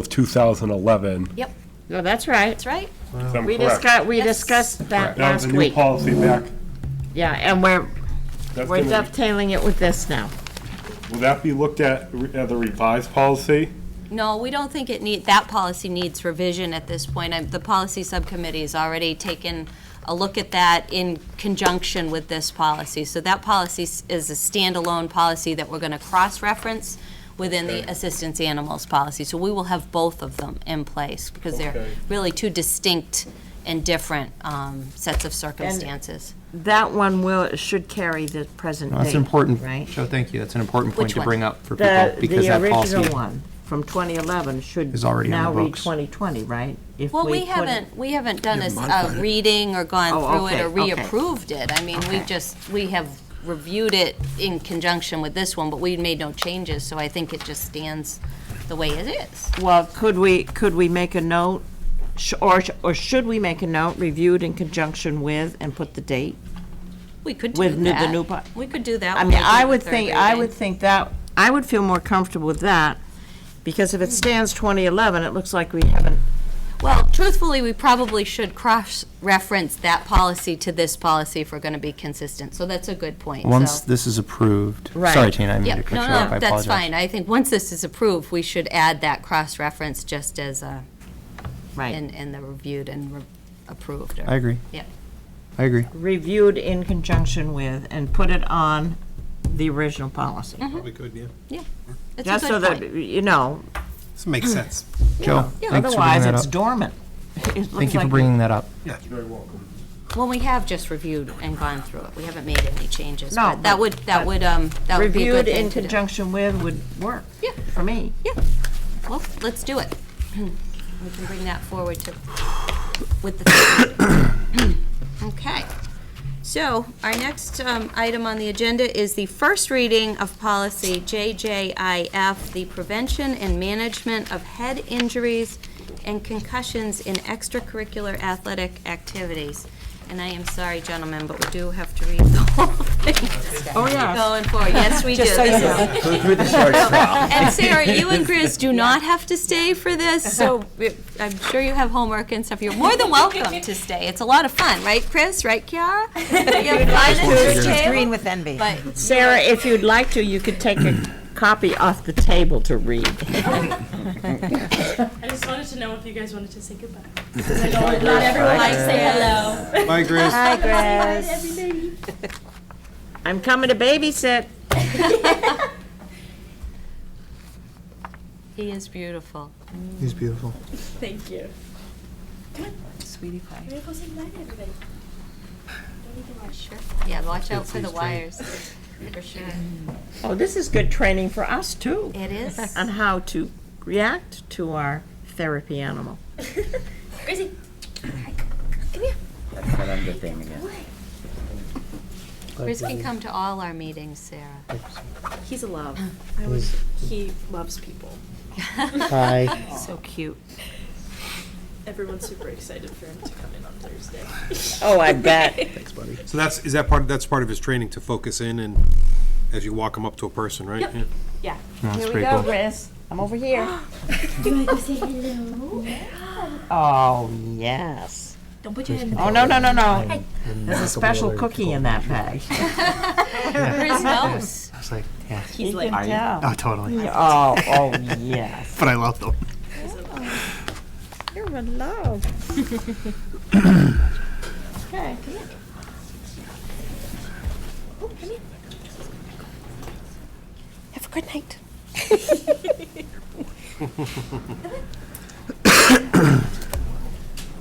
of 2011. Yep, No, that's right. that's right. if I'm We correct. discussed, we Yes. discussed that That was last a new week. policy back. Yeah, and we're, That's we're gonna be- dovetailing it with this now. Will that be looked at re- as a revised policy? No, we don't think it need, that policy needs revision at this point. I- The policy subcommittee has already taken a look at that in conjunction with this policy. So that policy s- is a standalone policy that we're going to cross-reference within the assistance animals policy. So we will have both of them in place because they're Okay. really two distinct and different um, sets of circumstances. That one will, should carry the present That's date, important, right? Joe, thank you, that's an important point Which to one? bring up for people, The, because the that original policy, one from 2011 should Is already on now the read books. 2020, right? If Well, we put it- haven't, we haven't done a s- a reading or Oh, gone through it or okay, okay. reapproved it. I mean, we Okay. just, we have reviewed it in conjunction with this one, but we made no changes, so I think it just stands the way it is. Well, could we, could we make a note, sh- or, sh- or should we make a note, reviewed in conjunction with, and put the date? We could do With new- the that. new po- We could do that. I when we mean, do I the would third think, I reading. would think that, I would feel more comfortable with that, because if it stands 2011, it looks like we haven't Well, truthfully, we probably should cross-reference that policy to this policy if we're going to be consistent, so that's a good point. once So- this is approved, Right. sorry, Tina, I Yeah, mean to cut you no, off, I no, apologize. that's fine. I think once this is approved, we should add that cross-reference just as a Right. and, and the reviewed and re- approved. or- I agree. Yeah. I agree. Reviewed in conjunction with and put it on the original policy. Probably could, yeah. It's a Just so good that, point. you know, This makes sense. Joe, Yeah, thanks for bringing otherwise that it's up. dormant. It Thank looks you for like- bringing that up. Well, we have just reviewed and gone through it. We haven't made any changes. No, but That but- would, that but would, um, that would be a good Reviewed in thing to do. conjunction with would work. Yeah. For me. Well, let's do it. We can bring that forward to, with the. Okay. So our next um, item on the agenda is the first reading of policy JJIF, the prevention and management of head injuries and concussions in extracurricular athletic activities. And I am sorry, gentlemen, but we do have to read the whole thing. Oh, yes. Going forward, yes, we do. This is- and Sarah, you and Chris do not have to stay for this, Uh-huh. so it- I'm sure you have homework and stuff. You're more than welcome to stay. It's a lot of fun, right, Chris? Right, Kiara? You have fun at your green table? with envy. But Sarah, if you'd like to, you could take a copy off the table to read. I just wanted to know if you guys wanted to say goodbye. 'Cause I know not everyone likes to say hello. Bye, Chris. Hi, Grace. I'm coming to babysit. he is beautiful. He's beautiful. Thank you. Come on. Sweetie pie. We're going to say goodbye to everybody. Don't need to watch. Sure. Yeah, watch out for the wires, for sure. Oh, this is good training for us, too. It is. on Uh-huh. how to react to our therapy animal. Gracie, Chris can come to all our meetings, Sarah. he's a love. I was, he loves people. Hi. So cute. Everyone's super excited for him to come in on Thursday. Oh, I bet. So that's, is that part, that's part of his training to focus in and as you walk him up to a person, right? Yeah. Yeah. That's pretty cool. Chris. I'm over here. Do you want to say hello? Oh, yes. Don't put your hand in Oh, no, no, no, no. There's a special cookie in that bag. Chris knows. I was like, yeah, He's like, Yeah. totally. Oh, oh, yes. But I love them. You're in love. Okay. have a good night.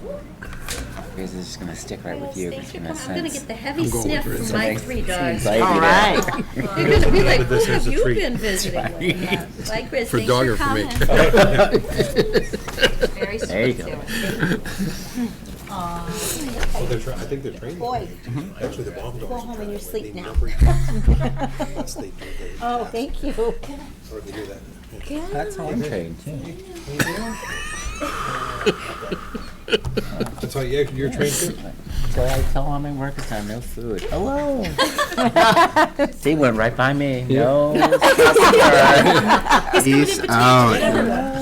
Because this is gonna stick right with you. It's gonna I'm gonna sense. get the heavy sniff from my three dogs. All right. They're gonna be like, who have you been visiting? with that?" Bye, Chris, thanks dog for or for me? coming. Very sweet, There you go. Sarah. Oh, they're, tra- I think they're training. Boy. Actually, the bomb dogs. Go home in your sleep now. Oh, thank you. That's all trained. That's how you, you're trained too? So I tell all my workers I'm no food. Hello. See, went right by me. No. customer. Peace out.